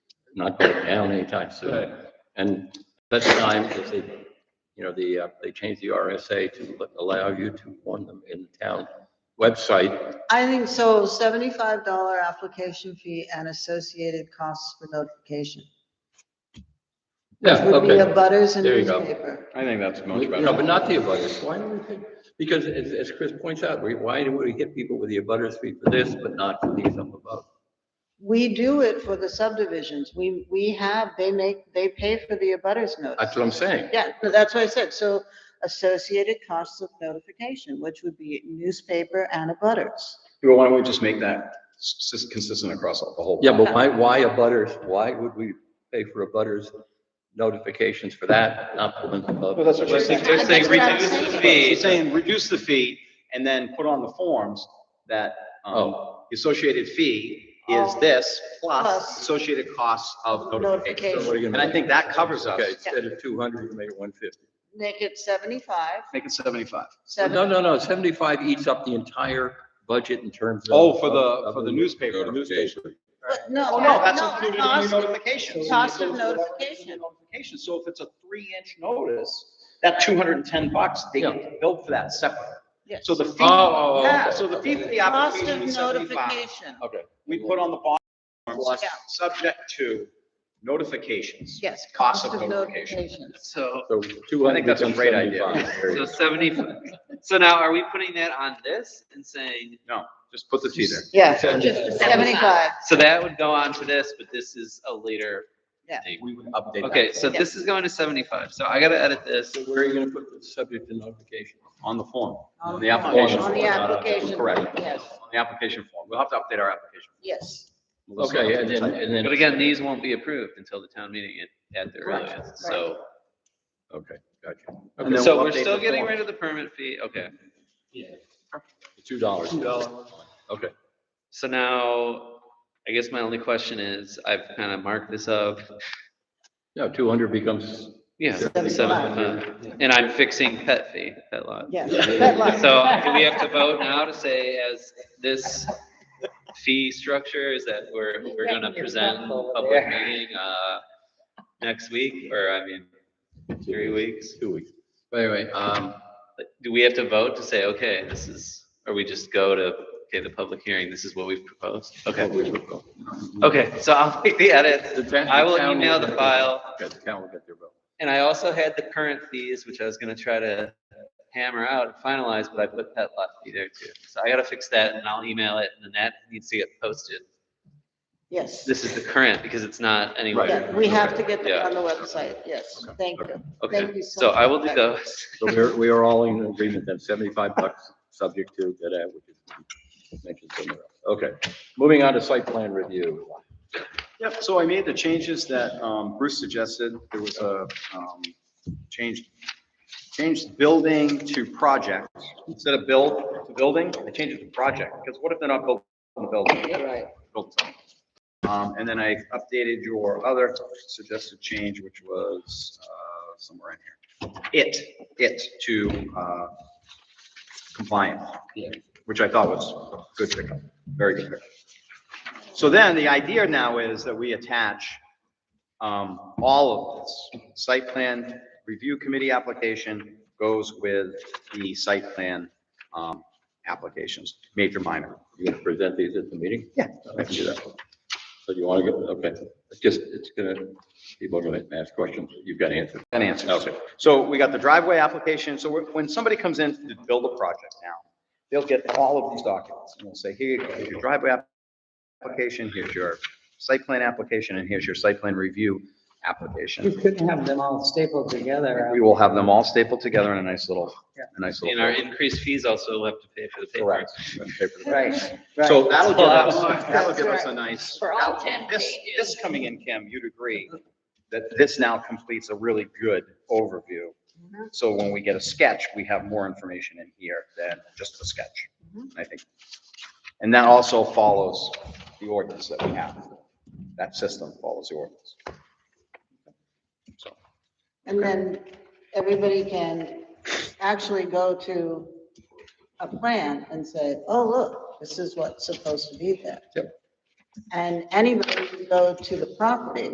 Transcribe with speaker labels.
Speaker 1: not going down anytime soon. And at that time, is they, you know, the, uh, they changed the RSA to allow you to warn them in the town website.
Speaker 2: I think so, seventy-five dollar application fee and associated costs for notification.
Speaker 1: Yeah,
Speaker 2: Would be a
Speaker 1: okay.
Speaker 2: butters and
Speaker 1: There you go.
Speaker 2: newspaper.
Speaker 3: I think that's much
Speaker 1: No, but
Speaker 3: better.
Speaker 1: not the abutters. Why do we think, because as, as Chris points out, we, why do we hit people with the abutters fee for this, but not for these up above?
Speaker 2: We do it for the subdivisions. We, we have, they make, they pay for the abutters notice.
Speaker 1: That's what I'm saying.
Speaker 2: Yeah, no, that's what I said. So associated costs of notification, which would be newspaper and abutters.
Speaker 3: Well, Why don't we just make that s- s- consistent across all- the whole?
Speaker 1: Yeah, but why, why a butters, why would we pay for a butters notifications for that, not for them above?
Speaker 3: Well, that's what she's saying.
Speaker 2: They're
Speaker 4: Just saying,
Speaker 2: That's what I'm
Speaker 4: reduce the
Speaker 2: saying.
Speaker 4: fee.
Speaker 3: She's saying reduce the fee and then put on the forms that, um,
Speaker 1: Oh,
Speaker 3: the associated fee is
Speaker 2: Oh.
Speaker 3: this plus
Speaker 2: Plus.
Speaker 3: associated costs of
Speaker 1: so
Speaker 3: notification.
Speaker 1: what are you
Speaker 3: And
Speaker 1: gonna
Speaker 3: I
Speaker 1: make?
Speaker 3: think that covers us.
Speaker 1: Okay, instead of two hundred, you make it one fifty.
Speaker 2: Make it seventy-five,
Speaker 3: Make it seventy-five.
Speaker 1: No,
Speaker 2: seven,
Speaker 1: no, no, seventy-five eats up the entire budget in terms of.
Speaker 3: Oh, for the,
Speaker 1: of-
Speaker 3: for
Speaker 1: of
Speaker 3: the newspaper, the newspaper.
Speaker 2: but no.
Speaker 3: Oh, no, that's
Speaker 2: no,
Speaker 3: included in
Speaker 2: cost-
Speaker 3: your notification.
Speaker 2: cost of notification.
Speaker 3: Notification, so if it's a three-inch notice, that two hundred and ten bucks, they
Speaker 1: Yeah.
Speaker 3: get billed for that separate.
Speaker 2: yes.
Speaker 3: So the fee,
Speaker 1: Oh, oh, oh,
Speaker 3: yeah,
Speaker 1: okay.
Speaker 3: so the fee for the
Speaker 2: Cost of
Speaker 3: application is seventy-five.
Speaker 2: notification,
Speaker 1: Okay.
Speaker 3: We put on the bottom,
Speaker 2: Yeah.
Speaker 3: subject to notifications.
Speaker 2: yes.
Speaker 3: Cost of notification.
Speaker 4: So,
Speaker 1: So two hundred.
Speaker 3: I think that's a great idea.
Speaker 4: so seventy, so now are we putting that on this and saying,
Speaker 3: No, just put the fee there.
Speaker 2: Yeah,
Speaker 1: Seventy-five.
Speaker 2: seventy-five,
Speaker 4: so that would go on to this, but this is a later
Speaker 2: Yeah.
Speaker 4: thing?
Speaker 3: We would update.
Speaker 4: Okay, so this is going to seventy-five, so I gotta edit this.
Speaker 1: So where are you gonna put the subject to notification?
Speaker 3: On the form,
Speaker 2: On
Speaker 3: on
Speaker 2: the
Speaker 3: the
Speaker 2: form.
Speaker 3: application.
Speaker 2: On the
Speaker 3: form, not
Speaker 2: application,
Speaker 3: Correct.
Speaker 2: yes.
Speaker 3: On the application form. We'll have to update our application.
Speaker 2: yes.
Speaker 1: Okay, and then, and
Speaker 4: But
Speaker 1: then,
Speaker 4: again, these won't be approved until the town meeting at, at the
Speaker 2: Right,
Speaker 4: earliest, so.
Speaker 1: okay, gotcha.
Speaker 3: And then
Speaker 1: Okay,
Speaker 4: So
Speaker 3: we'll
Speaker 4: we're
Speaker 3: update
Speaker 4: still
Speaker 3: the
Speaker 4: getting
Speaker 3: form.
Speaker 4: rid of the permit fee, okay.
Speaker 1: two dollars. Two dollars. Okay.
Speaker 4: So now, I guess my only question is, I've kind of marked this up,
Speaker 1: No, two hundred becomes,
Speaker 4: yeah,
Speaker 2: Seventy-five.
Speaker 4: seven, and I'm fixing pet fee, pet lot.
Speaker 2: Yes.
Speaker 1: Yeah.
Speaker 2: Pet lot.
Speaker 4: So do we have to vote now to say as this fee structure is that we're, we're gonna present public meeting, uh, next week, or I mean, three weeks?
Speaker 1: two weeks. But anyway, um,
Speaker 4: Do we have to vote to say, okay, this is, or we just go to, okay, the public hearing, this is what we've proposed? Okay, okay, so I'll make the edit, I will email the file.
Speaker 1: Okay, the town will get their vote.
Speaker 4: And I also had the current fees, which I was gonna try to hammer out and finalize, but I put pet lot fee there too. So I gotta fix that and I'll email it and then that needs to get posted.
Speaker 2: Yes,
Speaker 4: This is the current because it's not anywhere.
Speaker 2: yeah, we have to get them
Speaker 4: Yeah.
Speaker 2: on the website, yes, thank you. Thank
Speaker 4: Okay,
Speaker 2: you so
Speaker 4: so I will do
Speaker 2: much.
Speaker 4: those.
Speaker 1: So we're, we are all in agreement that seventy-five bucks, subject to that, uh, which is mentioned somewhere else. Okay, moving on to site plan review.
Speaker 3: Yep, so I made the changes that um, Bruce suggested. There was a um, change, changed building to project. Instead of build to building, I changed it to project, because what if they're not building the building?
Speaker 2: You're right.
Speaker 3: Built something. Um, And then I updated your other suggested change, which was uh, somewhere in here. It, it to uh, compliant, which I thought was good pickup, very good pickup. So then the idea now is that we attach um, all of this. Site plan review committee application goes with the site plan um, applications, major, minor.
Speaker 1: You're gonna present these at the meeting?
Speaker 3: Yeah.
Speaker 1: I can do that. So you wanna go, okay, it's just, it's gonna, people are gonna ask questions, you've got answers.
Speaker 3: An answer. So we got the driveway application. So we're- when somebody comes in to build a project now, they'll get all of these documents and they'll say, here, you go, here's your driveway app- application, here's your site plan application, and here's your site plan review
Speaker 5: You
Speaker 3: application.
Speaker 5: could have them all stapled together.
Speaker 3: We will have them all stapled together in a nice little, a nice little.
Speaker 4: And our increased fees also will have to pay for the paper.
Speaker 3: Correct. Paper.
Speaker 5: Right.
Speaker 3: So that'll give us, that'll
Speaker 2: That's
Speaker 3: give us
Speaker 2: right.
Speaker 3: a nice.
Speaker 2: For all
Speaker 3: that'll-
Speaker 2: 10
Speaker 3: This, this coming in, Kim, you'd agree, that this now completes a really good overview.
Speaker 2: Mhm.
Speaker 3: So when we get a sketch, we have more information in here than just the sketch, I think. And that also follows the ordinance that we have. That system follows the ordinance.
Speaker 2: And then everybody can actually go to a plan and say, oh, look, this is what's supposed to be there.
Speaker 1: Yep.
Speaker 2: And anybody can go to the property